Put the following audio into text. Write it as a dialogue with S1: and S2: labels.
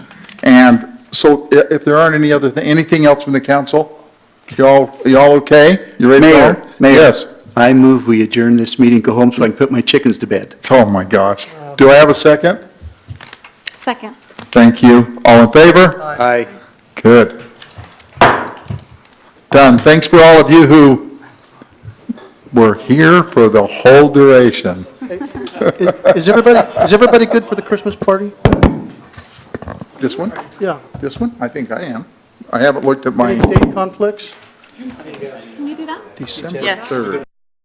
S1: so i- if there aren't any other, thi- anything else from the council? Y'all, y'all okay? You ready to go?
S2: Mayor, Mayor.
S1: Yes.
S2: I move we adjourn this meeting, go home so I can put my chickens to bed.
S1: Oh, my gosh. Do I have a second?
S3: Second.
S1: Thank you. All in favor?
S2: Aye.
S1: Good. Done. Thanks for all of you who were here for the whole duration.
S4: Is everybody, is everybody good for the Christmas party?
S1: This one?
S4: Yeah.
S1: This one? I think I am. I haven't looked at
S4: Any
S1: mine.
S4: date conflicts?
S3: Can you do that?
S1: December
S3: Yes.
S1: 3rd.